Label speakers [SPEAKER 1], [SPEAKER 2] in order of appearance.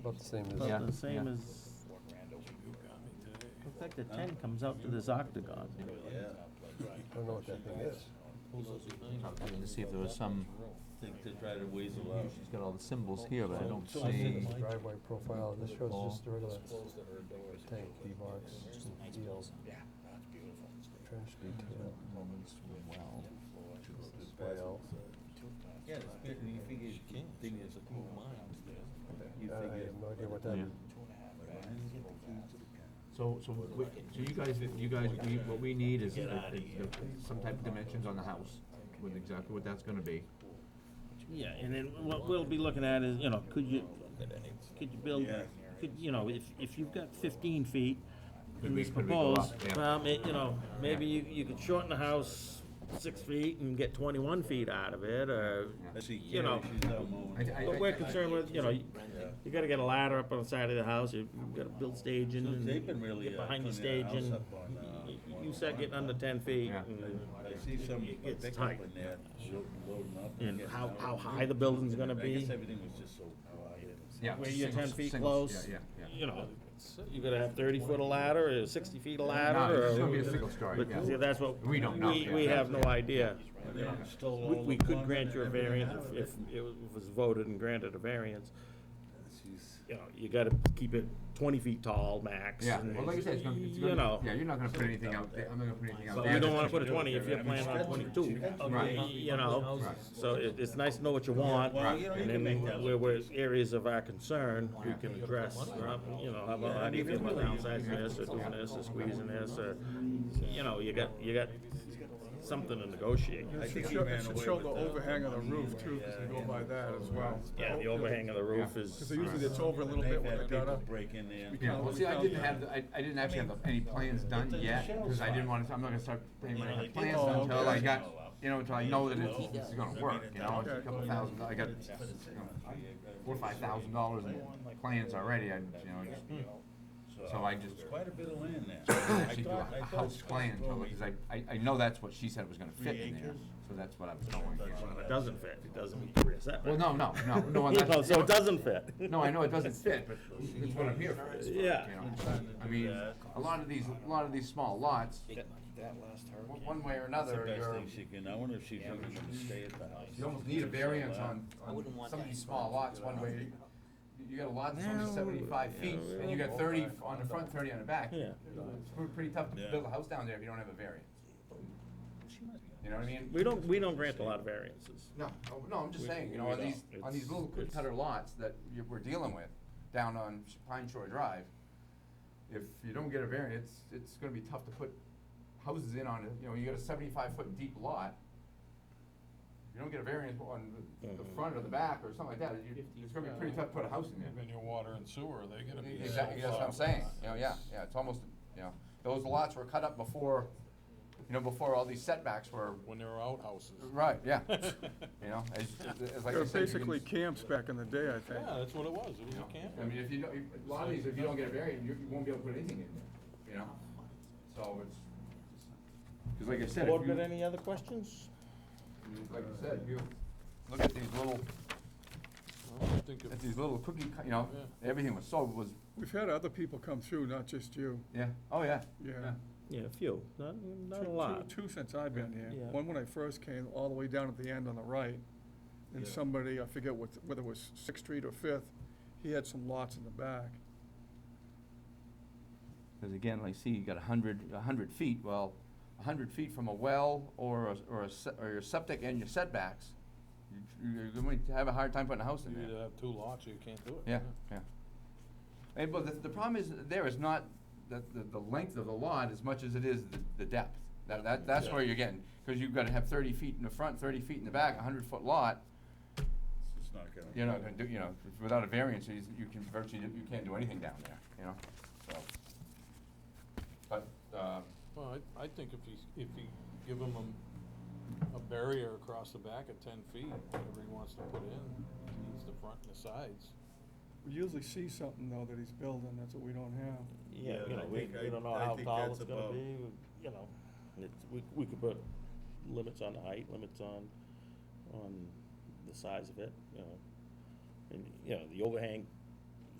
[SPEAKER 1] About the same as,
[SPEAKER 2] About
[SPEAKER 3] Yeah,
[SPEAKER 2] the same
[SPEAKER 3] yeah.
[SPEAKER 2] as, in fact, the ten comes out to this octagon.
[SPEAKER 1] I don't know what that thing is.
[SPEAKER 3] I'm looking to see if there was some,
[SPEAKER 4] Think to try to weasel out.
[SPEAKER 3] she's got all the symbols here, but I don't
[SPEAKER 1] This is
[SPEAKER 3] see.
[SPEAKER 1] the driveway profile, this shows
[SPEAKER 3] Ball.
[SPEAKER 1] just the regular tank, D-box, deal. Trash detail. Display out.
[SPEAKER 4] Yeah, it's big, and you figure, thing is a cool mind. You
[SPEAKER 5] Uh,
[SPEAKER 1] Uh, I
[SPEAKER 4] figure.
[SPEAKER 1] have no idea what that,
[SPEAKER 3] Yeah. So, so, we- so you guys, you guys, we, what we need is, is the- some type of dimensions on the house, with exactly what that's gonna be.
[SPEAKER 2] Yeah, and then what we'll be looking at is, you know, could you, could you build, could, you know, if, if you've got fifteen feet,
[SPEAKER 3] Could
[SPEAKER 2] in
[SPEAKER 3] we-
[SPEAKER 2] this
[SPEAKER 3] could we go
[SPEAKER 2] proposed,
[SPEAKER 3] up? Yeah.
[SPEAKER 2] well, ma- you know, maybe you, you could shorten the house six feet and get twenty-one feet out of it, or,
[SPEAKER 4] I see
[SPEAKER 2] You know.
[SPEAKER 4] Carrie, she's out
[SPEAKER 3] I,
[SPEAKER 4] mowing.
[SPEAKER 3] I,
[SPEAKER 2] but we're
[SPEAKER 3] I,
[SPEAKER 2] concerned with, you know, you you gotta get a ladder up on the side of the house, you you gotta build staging and
[SPEAKER 4] They've been really.
[SPEAKER 2] get
[SPEAKER 4] uh,
[SPEAKER 2] behind the
[SPEAKER 4] putting
[SPEAKER 2] stage
[SPEAKER 4] their
[SPEAKER 2] and
[SPEAKER 4] house up on, uh,
[SPEAKER 2] y- y- you start getting under ten feet.
[SPEAKER 3] Yeah.
[SPEAKER 2] and-
[SPEAKER 4] I see some
[SPEAKER 2] It's
[SPEAKER 4] pickup
[SPEAKER 2] tight.
[SPEAKER 4] in there, loading loading up.
[SPEAKER 2] And
[SPEAKER 4] getting
[SPEAKER 2] how,
[SPEAKER 4] out.
[SPEAKER 2] how high the building's gonna
[SPEAKER 4] I guess
[SPEAKER 2] be,
[SPEAKER 4] everything was just so quiet.
[SPEAKER 3] yeah.
[SPEAKER 2] where
[SPEAKER 3] just
[SPEAKER 2] you're
[SPEAKER 3] singles-
[SPEAKER 2] 10 feet
[SPEAKER 3] singles,
[SPEAKER 2] close.
[SPEAKER 3] Yeah, yeah, yeah.
[SPEAKER 2] you know, you're gonna have thirty foot of ladder, or sixty feet of
[SPEAKER 3] No,
[SPEAKER 2] ladder,
[SPEAKER 3] it's just gonna be a
[SPEAKER 2] or.
[SPEAKER 3] single story,
[SPEAKER 2] But see,
[SPEAKER 3] yeah.
[SPEAKER 2] that's what.
[SPEAKER 3] We don't know,
[SPEAKER 2] We,
[SPEAKER 3] yeah.
[SPEAKER 2] we have no idea.
[SPEAKER 4] And they stole
[SPEAKER 2] We,
[SPEAKER 4] all
[SPEAKER 2] we
[SPEAKER 4] the
[SPEAKER 2] could
[SPEAKER 4] funds
[SPEAKER 2] grant
[SPEAKER 4] and
[SPEAKER 2] you a
[SPEAKER 4] everything
[SPEAKER 2] variance
[SPEAKER 4] out of
[SPEAKER 2] if,
[SPEAKER 4] it.
[SPEAKER 2] if it was voted and granted a variance.
[SPEAKER 4] She's-
[SPEAKER 2] You know, you gotta keep it twenty feet tall max.
[SPEAKER 3] Yeah,
[SPEAKER 2] and,
[SPEAKER 3] well, like I said, it's gonna, it's
[SPEAKER 2] You know.
[SPEAKER 3] gonna, yeah, you're not gonna put anything out there, I'm not gonna put anything out
[SPEAKER 2] But
[SPEAKER 3] there.
[SPEAKER 2] we don't wanna
[SPEAKER 3] that's gonna-
[SPEAKER 2] put a twenty if you're planning on twenty-two.
[SPEAKER 3] Right.
[SPEAKER 2] You know,
[SPEAKER 3] Right.
[SPEAKER 2] so it, it's nice to know what you want,
[SPEAKER 4] Well, you know, you
[SPEAKER 2] and
[SPEAKER 4] can make
[SPEAKER 2] then
[SPEAKER 4] that.
[SPEAKER 2] where, where it's areas of our concern, we can address, um, you know, how about, how do you feel about downsizing this, or doing this, or squeezing this, or, you know, you got, you got something to negotiate.
[SPEAKER 4] I
[SPEAKER 5] It should
[SPEAKER 4] think he
[SPEAKER 5] show,
[SPEAKER 4] ran
[SPEAKER 5] it should
[SPEAKER 4] away
[SPEAKER 5] show
[SPEAKER 4] with
[SPEAKER 5] the
[SPEAKER 4] that.
[SPEAKER 5] overhang of the roof too, because they go by that as well.
[SPEAKER 2] Yeah, the overhang of the roof
[SPEAKER 5] Because
[SPEAKER 2] is,
[SPEAKER 5] usually it's over a little
[SPEAKER 4] They've
[SPEAKER 5] bit when
[SPEAKER 4] had
[SPEAKER 5] they got
[SPEAKER 4] people
[SPEAKER 5] up.
[SPEAKER 4] Break in there.
[SPEAKER 3] Yeah, well, see, I didn't have, the- I, I didn't actually have the- any plans done yet, because I didn't wanna, I'm not gonna start paying money for plans
[SPEAKER 5] Oh,
[SPEAKER 3] until
[SPEAKER 5] okay.
[SPEAKER 3] I got, you know, until I know that it's, it's gonna work, you know, it's a
[SPEAKER 5] Okay.
[SPEAKER 3] couple thousand, I got, you know, four, or five thousand dollars in plans already, I, you know, just- so I just
[SPEAKER 4] Quite a bit of land there.
[SPEAKER 3] actually do a house plan, because I, I, I know that's what she said was gonna fit in there, so that's what I was going for.
[SPEAKER 2] it doesn't fit, it doesn't meet the rear setback.
[SPEAKER 3] Well, no, no, no, no,
[SPEAKER 2] You know,
[SPEAKER 3] that's,
[SPEAKER 2] so it doesn't fit.
[SPEAKER 3] No, I know it doesn't fit, but it's what I'm here for. is for it,
[SPEAKER 2] Yeah.
[SPEAKER 3] you know. I mean, a lot of these, a lot of these small lots, one one way or
[SPEAKER 4] That's the
[SPEAKER 3] another,
[SPEAKER 4] best
[SPEAKER 3] you're,
[SPEAKER 4] thing she can, I wonder if she's ever gonna stay at the house.
[SPEAKER 3] you almost need a variance on,
[SPEAKER 6] I wouldn't
[SPEAKER 3] on
[SPEAKER 6] want
[SPEAKER 3] some of
[SPEAKER 6] that
[SPEAKER 3] these
[SPEAKER 6] in
[SPEAKER 3] small lots, one way. You- You got a lot that's only seventy-five feet, and you got thirty on the front, thirty on the back.
[SPEAKER 2] Yeah.
[SPEAKER 3] It's pr- pretty tough to
[SPEAKER 4] Yeah.
[SPEAKER 3] build a house down there if you don't have a variance, you know what I mean?
[SPEAKER 2] We don't, we don't grant a lot of variances.
[SPEAKER 3] No, oh, no, I'm just
[SPEAKER 2] We-
[SPEAKER 3] saying, you
[SPEAKER 2] we
[SPEAKER 3] know, on
[SPEAKER 2] don't.
[SPEAKER 3] these, on these
[SPEAKER 2] It's-
[SPEAKER 3] little cookie
[SPEAKER 2] it's-
[SPEAKER 3] cutter lots that you, we're dealing with, down on Sh- Pine Shore Drive, if you don't get a variance, it's gonna be tough to put houses in on it, you know, you got a seventy-five foot deep lot. If you don't get a variance on the- the
[SPEAKER 2] Mhm.
[SPEAKER 3] front or the back or something like that, you, it's gonna be pretty tough to put a house in there.
[SPEAKER 5] Then your water and sewer, they're gonna
[SPEAKER 3] Exactly, that's what I'm saying, you know, yeah, yeah, it's almost, you know, those lots were cut up before, you know, before all these setbacks were,
[SPEAKER 5] When there were outhouses.
[SPEAKER 3] right, yeah. You know, as, as like
[SPEAKER 5] They were
[SPEAKER 3] I said. you can-
[SPEAKER 5] basically camps back in the day, I think.
[SPEAKER 7] that's what it was, it was a camp.
[SPEAKER 3] I mean, if you don't, if- a lot of these, if you don't get a variance, you, you won't be able to put anything in there, you know? So it's, cause like I said, if
[SPEAKER 2] Board
[SPEAKER 3] you,
[SPEAKER 2] got any other questions?
[SPEAKER 3] like I said, if you look at these little,
[SPEAKER 7] I think it-
[SPEAKER 3] at these little cookie, cut- you know, everything was so, was,
[SPEAKER 5] We've had other people come through, not just you,
[SPEAKER 3] yeah, oh, yeah.
[SPEAKER 5] yeah.
[SPEAKER 2] Yeah, a few, not, not
[SPEAKER 5] Two-
[SPEAKER 2] a
[SPEAKER 5] two-
[SPEAKER 2] lot.
[SPEAKER 5] Two since I've been here.
[SPEAKER 2] Yeah.
[SPEAKER 5] One when I first came, all the way down at the end on the right. And somebody, I forget what, whether it was Sixth Street or Fifth, he had some lots in the back.
[SPEAKER 3] Cause again, like, see, you got a hundred, a hundred feet, well, a hundred feet from a well or a, or a, se- or your septic and your setbacks, you- you're going to have a hard time putting a house in
[SPEAKER 7] You
[SPEAKER 3] there.
[SPEAKER 7] either have two lots or you can't do it.
[SPEAKER 3] Yeah, yeah. And, but the, the problem is, there is not the, the, the length of the lot as much as it is the, the depth. That, that, that's where you're getting, cause you've gotta have thirty feet in the front, thirty feet in the back, a hundred foot lot,
[SPEAKER 4] It's not gonna.
[SPEAKER 3] you're not gonna do, you know, without a variance, you, you can virtually, you can't do anything down there, you know, so. But, uh,
[SPEAKER 7] Well, I, I think if you, if you give them a, a barrier across the back of ten feet, whatever he wants to put in, he needs the front and the sides.
[SPEAKER 5] We usually see something though that he's building, that's what we don't have.
[SPEAKER 2] Yeah,
[SPEAKER 4] Yeah,
[SPEAKER 2] you
[SPEAKER 4] I
[SPEAKER 2] know, we,
[SPEAKER 4] think I-
[SPEAKER 2] we don't know
[SPEAKER 4] I
[SPEAKER 2] how
[SPEAKER 4] think
[SPEAKER 2] tall
[SPEAKER 4] that's
[SPEAKER 2] it's gonna
[SPEAKER 4] about-
[SPEAKER 2] be, you know, it's, we, we could put limits on the height, limits on, on the size of it, you know. And, you know, the overhang